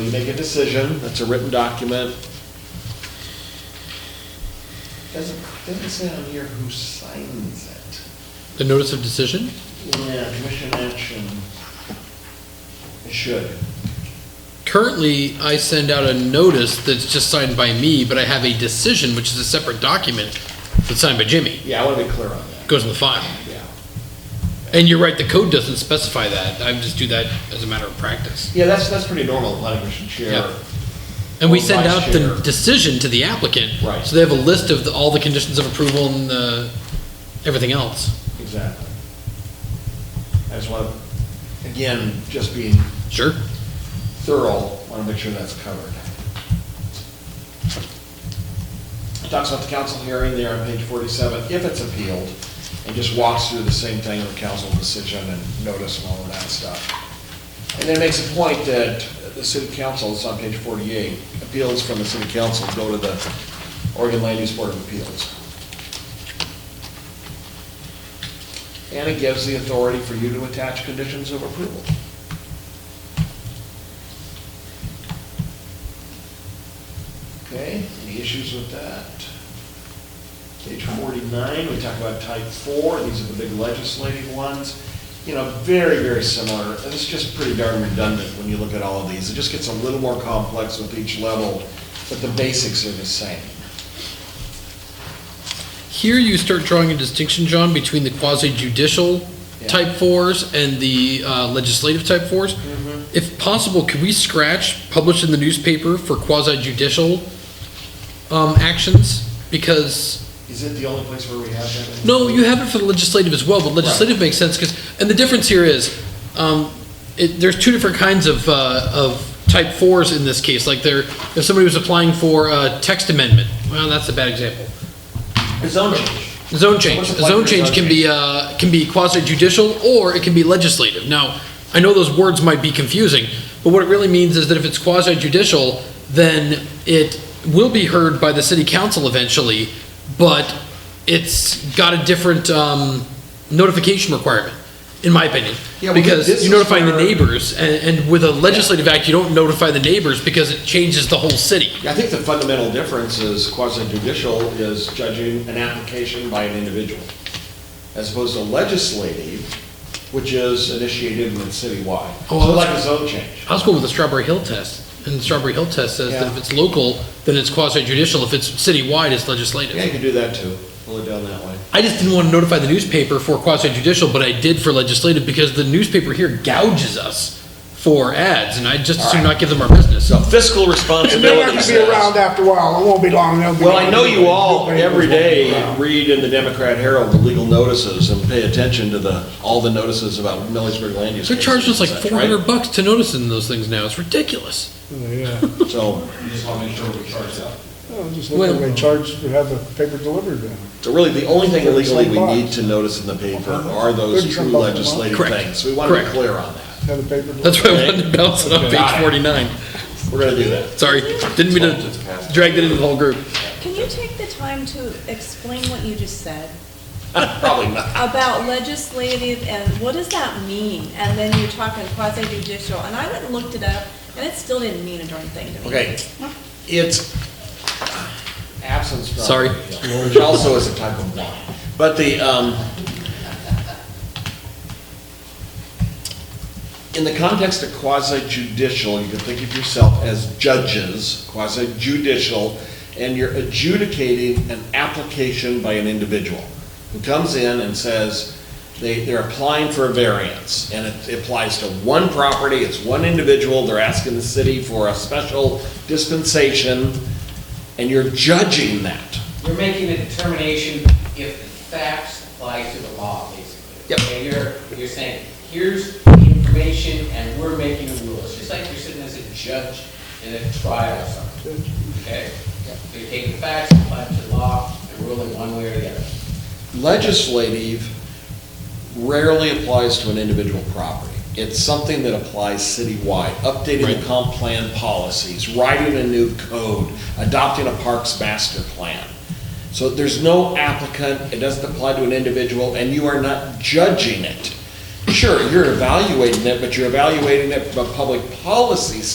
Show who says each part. Speaker 1: make a decision, that's a written document. Doesn't, doesn't say on here who signs it.
Speaker 2: The notice of decision?
Speaker 1: Yeah, commission action. It should.
Speaker 2: Currently, I send out a notice that's just signed by me, but I have a decision, which is a separate document that's signed by Jimmy.
Speaker 1: Yeah, I want to be clear on that,
Speaker 2: Goes in the file.
Speaker 1: yeah.
Speaker 2: And you're right, the code doesn't specify that. I just do that as a matter of practice.
Speaker 1: Yeah, that's, that's pretty normal, planning commission chair.
Speaker 2: Yeah. And we
Speaker 1: Or
Speaker 2: send
Speaker 1: vice
Speaker 2: out the
Speaker 1: chair.
Speaker 2: decision to the applicant.
Speaker 1: Right.
Speaker 2: So they have a list of the- all the conditions of approval and the, everything else.
Speaker 1: Exactly. I just want to, again, just being
Speaker 2: Sure.
Speaker 1: thorough, want to make sure that's covered. It Talks about the council hearing there on page forty-seven, if it's appealed, and just walks through the same thing with council decision and notice and all of that stuff. And then it makes a point that the city council, it's on page forty-eight, appeals from the city council go to the Oregon Land Use Board of Appeals. And it gives the authority for you to attach conditions of approval. Okay, any issues with that? Page forty-nine, we talk about type four, these are the big legislative ones. You know, very, very similar, and it's just pretty darn redundant when you look at all of these. It just gets a little more complex with each level, but the basics are the same.
Speaker 2: Here you start drawing a distinction, John, between the quasi judicial
Speaker 1: Yeah.
Speaker 2: type fours and the uh, legislative type fours. If possible, could we scratch published in the newspaper for quasi judicial um, actions? Because,
Speaker 1: Is it the only place where we have that? in?
Speaker 2: no, you have it for the legislative as well, but legislative makes sense because, and the difference here is, um, it, there's two different kinds of, uh, of type fours in this case. Like there, if somebody was applying for a text amendment, well, that's a bad example.
Speaker 1: The Zone change.
Speaker 2: Zone change.
Speaker 1: What's the
Speaker 2: The zone
Speaker 1: point for a
Speaker 2: change
Speaker 1: zone
Speaker 2: can be, uh, can be quasi judicial or it can be legislative. Now, I know those words might be confusing, but what it really means is that if it's quasi judicial, then it will be heard by the city council eventually, but it's got a different, um, notification requirement, in my opinion.
Speaker 1: Yeah, well, this
Speaker 2: Because
Speaker 1: is
Speaker 2: you're notifying the
Speaker 1: where-
Speaker 2: neighbors and, and with a legislative act, you don't notify the neighbors because it changes the whole city.
Speaker 1: I think the fundamental difference is quasi judicial is judging an application by an individual, as opposed to legislative, which is initiated and it's citywide.
Speaker 2: Oh,
Speaker 1: So
Speaker 2: well,
Speaker 1: like
Speaker 2: that's-
Speaker 1: a zone change.
Speaker 2: I was going with the Strawberry Hill test, and the Strawberry Hill test says that
Speaker 1: Yeah.
Speaker 2: if it's local, then it's quasi judicial, if it's citywide, it's legislative.
Speaker 1: Yeah, you can do that too, pull it down that way.
Speaker 2: I just didn't want to notify the newspaper for quasi judicial, but I did for legislative, because the newspaper here gouges us for ads, and I just assume not give them our business, so.
Speaker 3: Fiscal
Speaker 4: They're not
Speaker 3: responsibility
Speaker 4: gonna be
Speaker 3: says.
Speaker 4: around after a while, it won't be long. they'll be-
Speaker 1: Well, I know you all,
Speaker 4: Nobody
Speaker 1: every
Speaker 4: will be
Speaker 1: day,
Speaker 4: around.
Speaker 1: read in the Democrat Herald the legal notices and pay attention to the, all the notices about Millersburg land use.
Speaker 2: They're charging
Speaker 1: cases
Speaker 2: us like
Speaker 1: and such,
Speaker 2: four
Speaker 1: right?
Speaker 2: hundred bucks to notice in those things now, it's ridiculous.
Speaker 1: So,
Speaker 4: Oh, Just look at they charge to have the paper delivered then.
Speaker 1: So really, the only thing legally we
Speaker 4: Thirty-five
Speaker 1: need to notice in the paper are those
Speaker 4: Thirty-five
Speaker 1: true
Speaker 4: bucks a month.
Speaker 1: legislative
Speaker 2: Correct.
Speaker 1: things. We want to be
Speaker 2: Correct.
Speaker 1: clear on that.
Speaker 4: Have the paper delivered.
Speaker 2: That's why I
Speaker 1: Okay.
Speaker 2: wanted to bounce it on
Speaker 1: Got
Speaker 2: page
Speaker 1: it.
Speaker 2: forty-nine,
Speaker 1: We're going to do that.
Speaker 2: sorry, didn't mean to drag that into the whole group.
Speaker 5: Can you take the time to explain what you just said
Speaker 1: Probably not.
Speaker 5: about legislative and what does that mean? And then you're talking quasi judicial, and I went and looked it up, and it still didn't mean a darn thing to me.
Speaker 1: Okay. It's absence. from-
Speaker 2: Sorry.
Speaker 1: Which also is a type of law. But the, um, in the context of quasi judicial, you can think of yourself as judges, quasi judicial, and you're adjudicating an application by an individual who comes in and says, they, they're applying for a variance, and it applies to one property, it's one individual, they're asking the city for a special dispensation, and you're judging that.
Speaker 6: You're making a determination if the facts apply to the law, basically.
Speaker 1: Yep.
Speaker 6: Okay, you're, you're saying, here's the information, and we're making the rules. It's just like you're sitting as a judge in a trial or something, okay? So you take the facts, apply it to the law, and rule it one way or the other.
Speaker 1: legislative rarely applies to an individual property. It's something that applies citywide, updating the comp plan policies, writing a new code, adopting a parks master plan. So there's no applicant, it doesn't apply to an individual, and you are not judging it. Sure, you're evaluating it, but you're evaluating it from a public policy